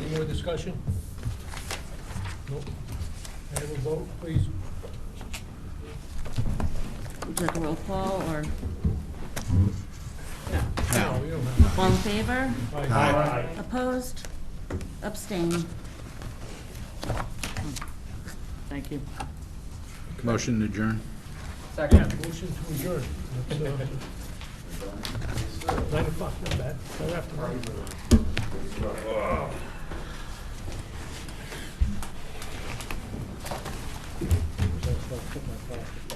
Any more discussion? Nope. Can I have a vote, please? Would you like a roll call, or, No, you don't have. all in favor? Oh, Aye. Opposed? Abstain. Thank you. Motion to adjourn. Motion to adjourn. That's, uh, Nine o'clock, not bad. Right after nine. That's why I put my glasses